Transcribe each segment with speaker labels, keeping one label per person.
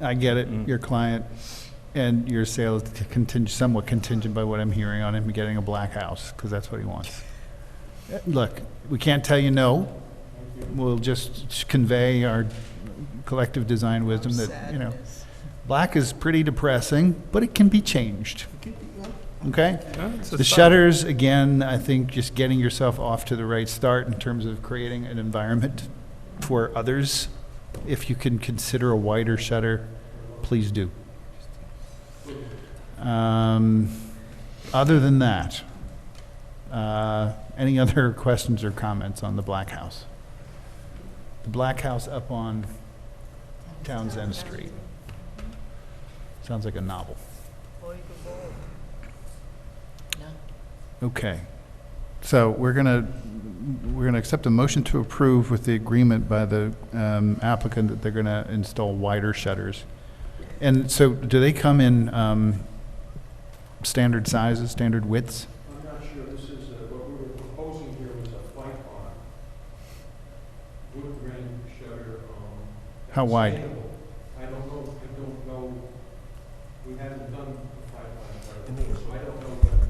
Speaker 1: I get it, your client and your sales contingent, somewhat contingent by what I'm hearing on him getting a black house, because that's what he wants. Uh, Look, we can't tell you no. We'll just convey our collective design wisdom that, you know,
Speaker 2: Sadness.
Speaker 1: black is pretty depressing, but it can be changed. Okay?
Speaker 3: No, it's a
Speaker 1: The
Speaker 3: start.
Speaker 1: shutters, again, I think just getting yourself off to the right start in terms of creating an environment for others. If you can consider a wider shutter, please do. Um, Other than that, uh, any other questions or comments on the Black House? The Black House up on Townsend Street. Sounds like a novel. Okay. So we're going to, we're going to accept a motion to approve with the agreement by the um, applicant that they're going to install wider shutters. And so do they come in um, standard sizes, standard widths?
Speaker 4: I'm not sure, this is, uh, what we were proposing here was a white barn, wood grain shutter, um.
Speaker 1: How wide?
Speaker 4: sustainable. I don't know, I don't know, we haven't done a five barn,
Speaker 3: And they-
Speaker 4: so I don't know what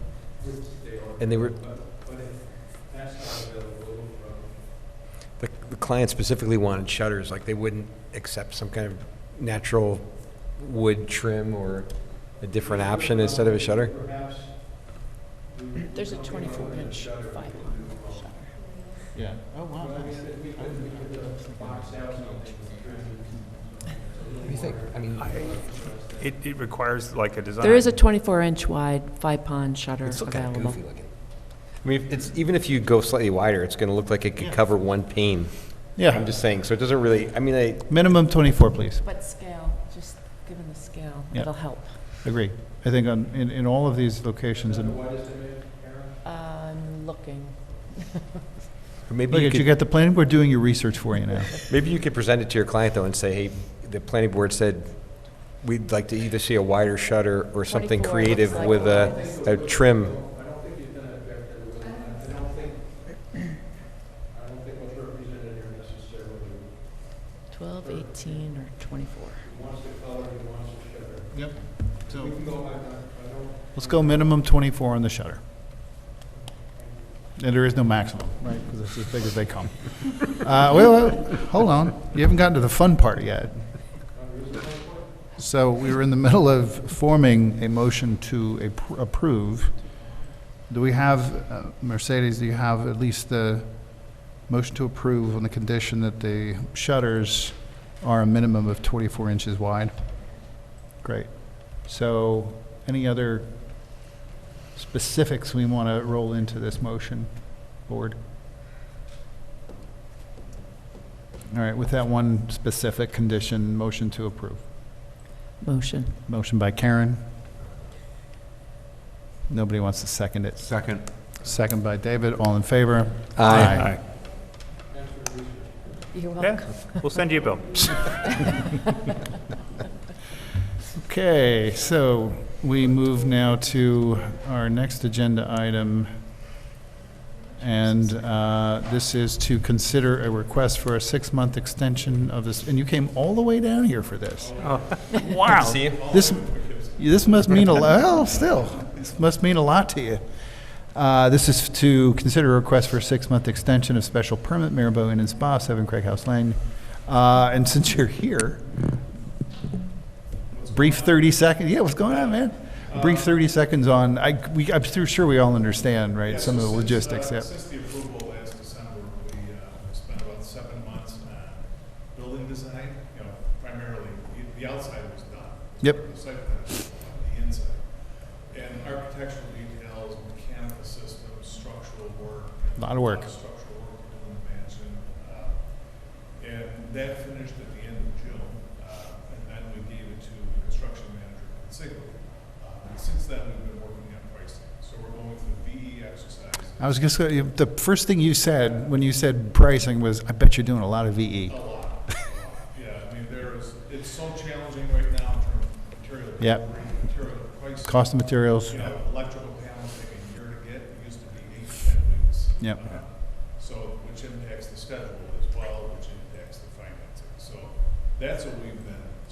Speaker 4: widths they are.
Speaker 3: And they were-
Speaker 4: But, but if that's not available, um,
Speaker 3: The the client specifically wanted shutters, like they wouldn't accept some kind of natural wood trim or a different option instead of a shutter?
Speaker 4: perhaps.
Speaker 2: There's a 24-inch five-arm shutter.
Speaker 1: Yeah. Oh, wow.
Speaker 3: What do you think? I mean,
Speaker 5: It, it requires like a design.
Speaker 2: There is a 24-inch wide five-pond shutter
Speaker 3: it's still kind of
Speaker 2: available.
Speaker 3: goofy looking. I mean, it's, even if you go slightly wider, it's going to look like it could cover one pane. I'm
Speaker 1: Yeah.
Speaker 3: just saying, so it doesn't really, I mean, I,
Speaker 1: Minimum 24, please.
Speaker 2: But scale, just given the scale,
Speaker 1: Yeah.
Speaker 2: it'll help.
Speaker 1: Agree. I think on, in, in all of these locations, and
Speaker 4: What is the name, Aaron?
Speaker 2: I'm looking.
Speaker 3: maybe
Speaker 1: look
Speaker 3: you
Speaker 1: at, you
Speaker 3: could,
Speaker 1: got the planning board doing your research for you now.
Speaker 3: maybe you could present it to your client though and say, hey, the planning board said, we'd like to either see a wider shutter or something
Speaker 2: 24 looks
Speaker 3: creative
Speaker 2: like
Speaker 3: with a,
Speaker 2: ours."
Speaker 3: a trim.
Speaker 4: I don't think, I don't think what's represented here necessarily,
Speaker 2: 12, 18, or
Speaker 4: he
Speaker 2: 24.
Speaker 4: wants the color, he wants the shutter.
Speaker 1: Yep.
Speaker 4: We
Speaker 1: So
Speaker 4: can go, I, I don't,
Speaker 1: Let's go minimum 24 on the shutter. And there is no maximum, right, because it's as big as they come. Uh, Wait, wait, hold on, you haven't gotten to the fun part yet. So we were in the middle of forming a motion to appro- approve. Do we have, uh, Mercedes, do you have at least the motion to approve on the condition that the shutters are a minimum of 24 inches wide? Great. So any other specifics we want to roll into this motion, board? All right, with that one specific condition, motion to approve.
Speaker 2: Motion.
Speaker 1: Motion by Karen. Nobody wants to second it.
Speaker 5: Second.
Speaker 1: Second by David, all in favor?
Speaker 3: Aye.
Speaker 2: You're welcome.
Speaker 5: Yeah, we'll send you a bill.
Speaker 1: Okay, so we move now to our next agenda item. And uh, this is to consider a request for a six-month extension of this, and you came all the way down here for this.
Speaker 5: Wow.
Speaker 3: See you.
Speaker 1: This, this must mean a, lo- well, still, this must mean a lot to you. Uh, This is to consider a request for a six-month extension of special permit Marabou Inn and Spa, 7 Craig House Lane. Uh, And since you're here, brief 30 seconds, yeah, what's going on, man? Brief 30 seconds on, I, we, I'm su- sure we all understand, right,
Speaker 6: Yeah,
Speaker 1: some of
Speaker 6: so
Speaker 1: the
Speaker 6: since,
Speaker 1: logistics,
Speaker 6: uh,
Speaker 1: yeah.
Speaker 6: Since the approval last December, we uh, spent about seven months on building design, you know, primarily, the- the outside was done.
Speaker 1: Yep.
Speaker 6: The site plan was on the inside. And architectural details, mechanical systems, structural work. and
Speaker 1: Lot of work.
Speaker 6: Structural work to do in the mansion. uh, And that finished at the end of June, uh, and then we gave it to the construction manager, Consiglio. Uh, And since then, we've been working on pricing. So we're going through VE exercises.
Speaker 1: I was just, gonna- the first thing you said, when you said pricing, was, I bet you're doing a lot of E. VE.
Speaker 6: A lot. Yeah, I mean, there is, it's so challenging right now in terms of material
Speaker 1: Yep.
Speaker 6: delivery, material prices.
Speaker 1: Cost of materials,
Speaker 6: You know, electrical panels take a year to get, it used to be eight, to ten weeks.
Speaker 1: Yep.
Speaker 6: Uh, So, which impacts the schedule as well, which impacts the financing. So that's what we've